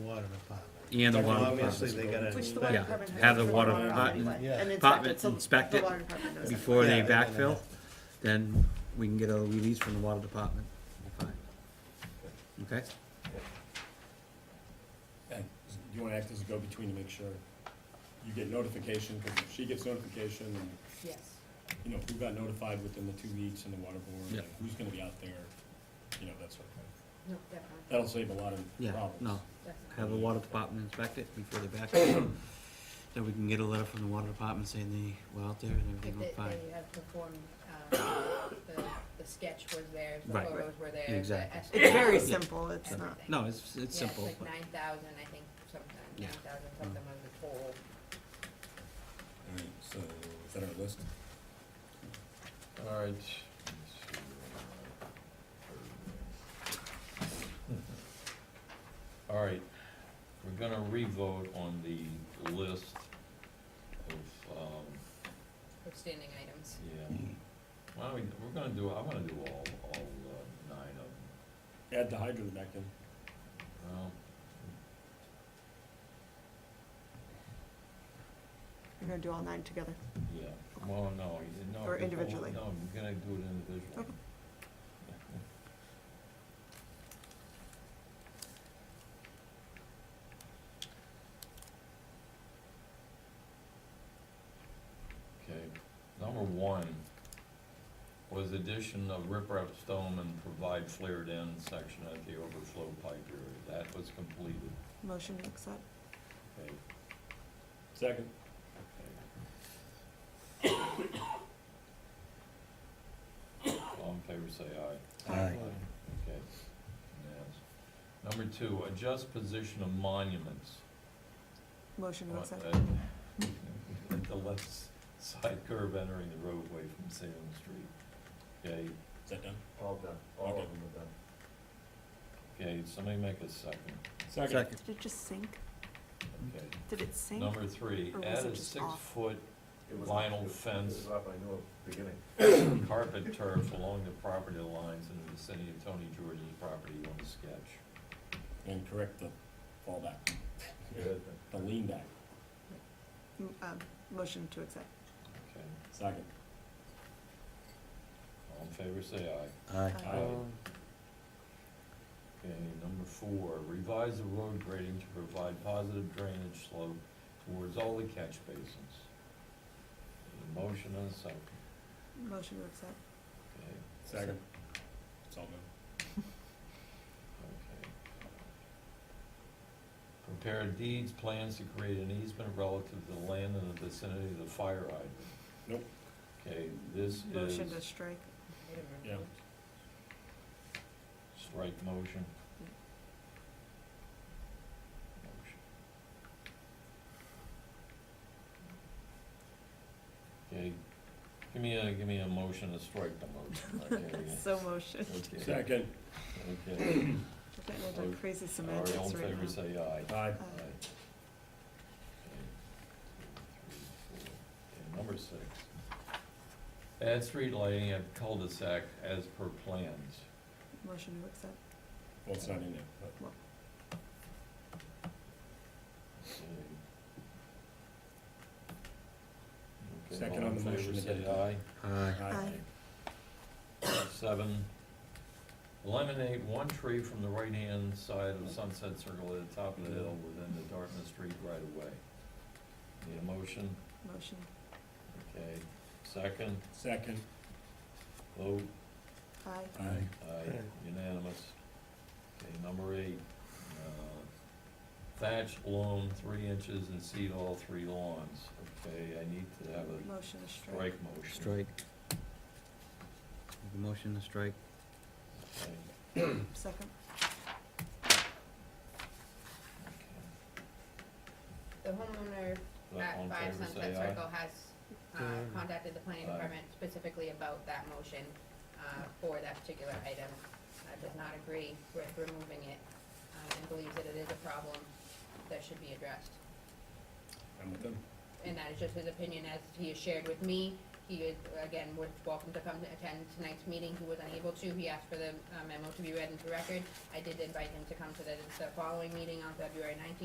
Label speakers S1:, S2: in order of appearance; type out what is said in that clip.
S1: water department.
S2: and the water
S1: Obviously,
S2: department
S1: they gotta
S3: Which the water
S2: Yeah,
S1: inspect.
S3: department has.
S2: have the
S3: to
S2: water
S3: follow
S2: department-
S3: anyway. And in fact,
S2: department
S3: it's a-
S2: inspect
S3: the
S2: it
S3: water department knows that.
S2: before they
S1: Yeah, they're gonna
S2: backfill,
S1: have-
S2: then we can get a release from the water department. Fine. Okay?
S4: And you wanna act as a go-between to make sure you get notification, because if she gets notification, and,
S5: Yes.
S4: you know, who got notified within the two weeks and the water board,
S2: Yeah.
S4: and who's gonna be out there, you know, that sort of thing.
S5: No, definitely.
S4: That'll save a lot of
S2: Yeah,
S4: problems.
S2: no,
S5: definitely.
S2: have the water department inspect it before they backfill. Then we can get a letter from the water department saying they were out there and
S5: If
S2: everything
S5: they,
S2: was fine.
S5: they had performed, um, the, the sketch was there, the
S2: Right.
S5: photos were there. the
S2: Exactly.
S5: estimate-
S3: It's very
S5: Yeah,
S3: simple, it's not,
S2: No, it's, it's
S5: it's
S2: simple,
S5: like
S2: but
S5: nine thousand, I think, sometimes,
S2: Yeah. Mm.
S5: nine thousand something was the total.
S4: All right, so, is that our list?
S6: All right. All right, we're gonna re-vote on the list of, um,
S5: Outstanding items.
S6: yeah. Why don't we, we're gonna do, I wanna do all, all uh, nine of them.
S4: Add the hydrant back in.
S6: Well,
S3: you're gonna do all nine together.
S6: yeah, well, no, you didn't, no.
S3: Or
S6: because all-
S3: individually.
S6: No, I'm gonna do it individually.
S3: Okay.
S6: Okay, number one was addition of riprap stone and provide flared end section at the overflow pipe area. That was completed,
S3: Motion to accept.
S6: okay?
S4: Second,
S6: All in favor, say aye.
S2: Aye.
S6: Okay. Yes. Number two, adjust position of monuments.
S3: Motion to
S6: What, uh,
S3: accept.
S6: at- At uh, the left s- side curve entering the roadway from Salem Street. Okay,
S4: is that done?
S7: All done, all of them are done.
S6: okay, somebody make a second,
S2: second,
S3: Did it just sink?
S6: okay.
S3: Did it sink?
S6: Number three,
S3: Or was it
S6: add a
S3: just off?
S6: six-foot
S7: It was-
S6: Vinyl
S7: it was-
S6: fence.
S7: It was up, I knew at the beginning.
S6: carpet turf along the property lines in the vicinity of Tony George's property on the sketch.
S4: And correct the fallback,
S7: Good.
S4: the lean back,
S3: M- Um, motion to accept.
S6: Okay,
S4: second.
S6: all in favor, say aye.
S2: aye.
S3: Aye.
S4: Aye.
S6: Okay, number four, revise the road grading to provide positive drainage slope towards all the catch basins. There's a motion and a second,
S3: Motion to accept.
S6: okay,
S4: Second. It's all done.
S6: okay. Prepare deeds, plans to create an easement relative to the land in the vicinity of the fire hydrant.
S4: Nope.
S6: Okay, this is
S3: Motion to strike.
S5: Wait a minute.
S4: Yeah.
S6: strike motion.
S3: Yeah.
S6: Motion. Okay, give me a, give me a motion to strike the motion, okay?
S3: So motion.
S6: Okay,
S4: Second,
S6: okay,
S3: We're getting into
S6: Motion.
S3: crazy
S6: all
S3: semantics
S6: right, all in
S3: right
S6: favor,
S3: now.
S6: say aye.
S4: aye,
S3: Uh,
S6: Aye. Okay, two, three, four. Okay, number six. Add street lighting at cul-de-sac as per plans.
S3: Motion to accept.
S4: well, it's not in there, but.
S6: Okay,
S4: Second
S6: all
S4: on
S6: in
S4: the
S6: favor,
S4: motion to
S6: say
S4: adopt.
S6: aye.
S2: Aye.
S3: Aye.
S6: Seven, eliminate one tree from the right-hand side of Sunset Circle at the top of the hill within the Dartmouth Street right of way. Need a motion?
S3: Motion.
S6: Okay. Second,
S4: Second,
S6: vote,
S3: Aye.
S4: aye.
S6: aye, unanimous. Okay, number eight, uh, thatch loam three inches and seed all three lawns. Okay, I need to have a
S3: Motion to strike.
S6: strike motion.
S2: Strike. Motion to strike,
S6: Okay.
S3: Second.
S6: Okay.
S5: The homeowner
S6: All
S5: at
S6: in
S5: Five
S6: favor,
S5: Sunset
S6: say aye.
S5: Circle has, uh, contacted the planning
S6: Aye.
S5: department specifically about that motion, uh, for that particular item. Uh, does not agree with removing it, um, and believes that it is a problem that should be addressed.
S4: I'm with them.
S5: And that is just his opinion as he has shared with me. He, is, again, would welcome to come to attend tonight's meeting, he was unable to, he asked for the uh, memo to be read into record. I did invite him to come to the, the following meeting on February nineteenth,